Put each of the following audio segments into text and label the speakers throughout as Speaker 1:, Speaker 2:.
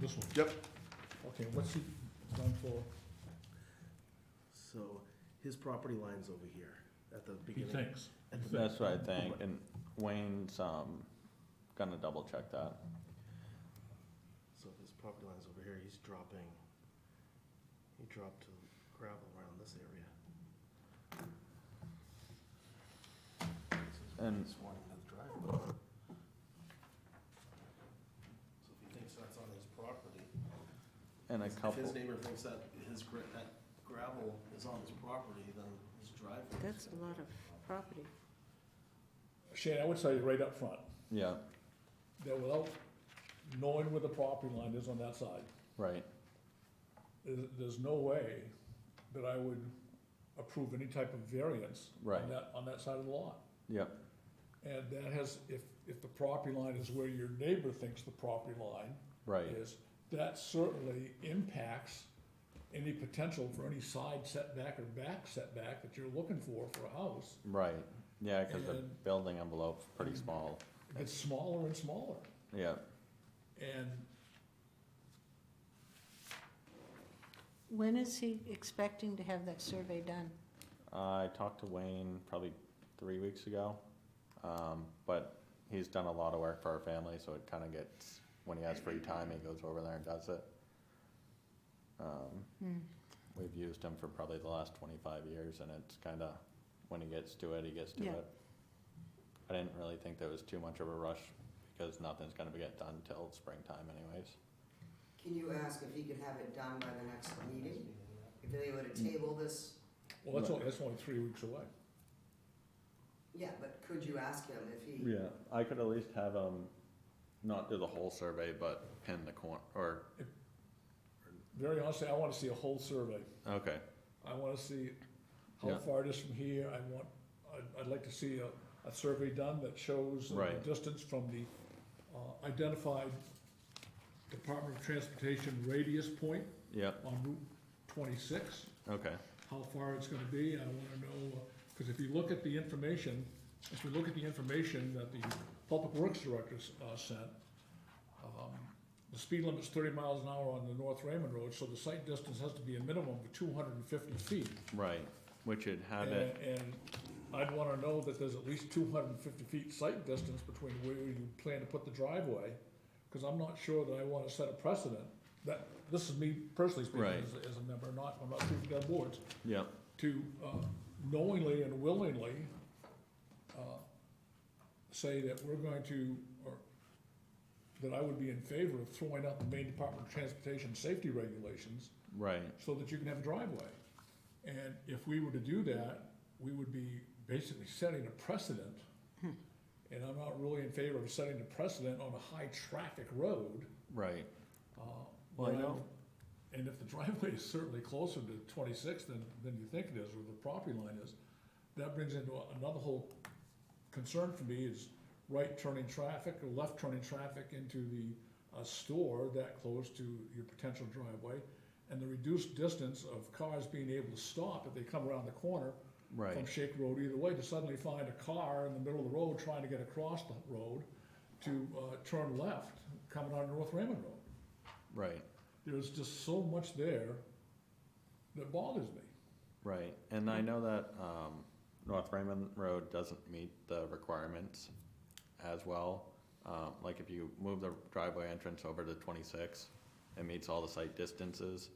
Speaker 1: This one?
Speaker 2: Yep.
Speaker 1: Okay, what's he done for?
Speaker 2: So his property line's over here at the
Speaker 1: He
Speaker 2: beginning.
Speaker 1: thinks.
Speaker 2: at the-
Speaker 3: That's what I think, and Wayne's, um, gonna double check that.
Speaker 2: So his property line's over here, he's dropping, he dropped gravel around this area.
Speaker 3: And-
Speaker 2: He's wanting another driveway. So if he thinks that's on his property.
Speaker 3: And a
Speaker 2: if- If
Speaker 3: couple,
Speaker 2: his neighbor thinks that his, gra- that gravel is on his property, then his driveway.
Speaker 4: That's a lot of property.
Speaker 1: Shane, I would say right up front,
Speaker 3: yeah,
Speaker 1: that without knowing where the property line is on that side,
Speaker 3: right,
Speaker 1: there's, there's no way that I would approve any type of variance
Speaker 3: Right.
Speaker 1: on that, on that side of the lot.
Speaker 3: yep,
Speaker 1: And that has, if, if the property line is where your neighbor thinks the property line
Speaker 3: right,
Speaker 1: is, that certainly impacts any potential for any side setback or back setback that you're looking for for a house.
Speaker 3: right. Yeah, cause the
Speaker 1: And-
Speaker 3: building envelope's pretty small,
Speaker 1: It gets smaller and smaller,
Speaker 3: yeah,
Speaker 1: and
Speaker 4: When is he expecting to have that survey done?
Speaker 3: I talked to Wayne probably three weeks ago, um, but he's done a lot of work for our family, so it kinda gets, when he has free time, he goes over there and does it. Um,
Speaker 4: Hmm.
Speaker 3: we've used him for probably the last twenty-five years, and it's kinda, when he gets to it, he gets to
Speaker 4: Yeah.
Speaker 3: it. I didn't really think there was too much of a rush, because nothing's gonna get done till springtime anyways.
Speaker 5: Can you ask if he could have it done by the next meeting? If they were to table this,
Speaker 1: Well, that's only, that's only three weeks away.
Speaker 5: yeah, but could you ask him if he,
Speaker 3: Yeah, I could at least have him not do the whole survey, but pin the corner, or,
Speaker 1: Very honestly, I wanna see a whole survey.
Speaker 3: okay,
Speaker 1: I wanna see how
Speaker 3: Yeah.
Speaker 1: far it is from here. I want, I'd, I'd like to see a, a survey done that shows the
Speaker 3: Right.
Speaker 1: distance from the, uh, identified Department of Transportation radius point
Speaker 3: yep,
Speaker 1: on Route twenty-six,
Speaker 3: okay,
Speaker 1: how far it's gonna be. I wanna know, uh, cause if you look at the information, if you look at the information that the Public Works Director, s- uh, sent, um, the speed limit's thirty miles an hour on the North Raymond Road, so the site distance has to be a minimum of two hundred and fifty feet.
Speaker 3: right, which it had
Speaker 1: And,
Speaker 3: it,
Speaker 1: and I'd wanna know that there's at least two hundred and fifty feet site distance between where you plan to put the driveway, cause I'm not sure that I wanna set a precedent, that, this is me personally speaking
Speaker 3: Right.
Speaker 1: as, as a member, not, I'm not speaking on boards,
Speaker 3: yep,
Speaker 1: to uh, knowingly and willingly uh, say that we're going to, or that I would be in favor of throwing out the Maine Department of Transportation safety regulations
Speaker 3: right,
Speaker 1: so that you can have a driveway. And if we were to do that, we would be basically setting a precedent. And I'm not really in favor of setting a precedent on a high-traffic road.
Speaker 3: right,
Speaker 1: uh,
Speaker 3: Well, I
Speaker 1: when I'm-
Speaker 3: know.
Speaker 1: And if the driveway is certainly closer to twenty-six than, than you think it is, or the property line is, that brings into a- another whole concern for me is right turning traffic or left turning traffic into the, uh store that close to your potential driveway. And the reduced distance of cars being able to stop if they come around the corner from
Speaker 3: right,
Speaker 1: Shake Road either way, to suddenly find a car in the middle of the road trying to get across the road to, uh, turn left, coming on North Raymond Road
Speaker 3: right.
Speaker 1: there's just so much there that bothers me.
Speaker 3: Right, and I know that, um, North Raymond Road doesn't meet the requirements as well. Um, like if you move the driveway entrance over to twenty-six, it meets all the site distances,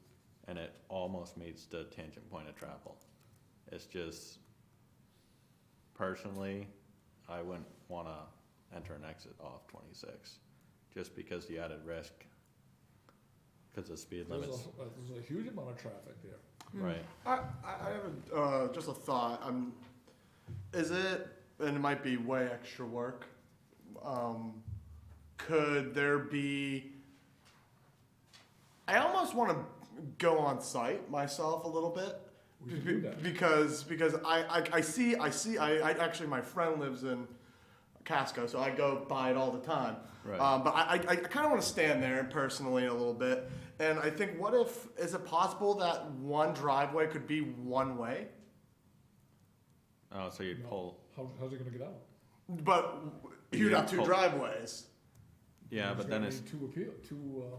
Speaker 3: and it almost meets the tangent point of travel. It's just, personally, I wouldn't wanna enter and exit off twenty-six, just because the added risk, cause the speed
Speaker 1: There's
Speaker 3: limits,
Speaker 1: a, uh, there's a huge amount of traffic there.
Speaker 3: right,
Speaker 2: I, I I have a, uh, just a thought. Um, is it, and it might be way extra work. Um, could there be? I almost want to go on site myself a little bit.
Speaker 1: We can do that.
Speaker 2: Because because I, I, I see I see I, I actually my friend lives in Casco, so I go by it all the time.
Speaker 3: Right.
Speaker 2: Um, but I, I, I kind of want to stand there personally a little bit. And I think, what if, is it possible that one driveway could be one way?
Speaker 3: oh, so you'd
Speaker 1: No.
Speaker 3: pull,
Speaker 1: How, how's it gonna get out?
Speaker 2: But you'd
Speaker 3: Yeah,
Speaker 2: have two
Speaker 3: pull-
Speaker 2: driveways.
Speaker 3: yeah,
Speaker 1: There's
Speaker 3: but then
Speaker 1: gonna
Speaker 3: it's
Speaker 1: be Two appeal, two, uh,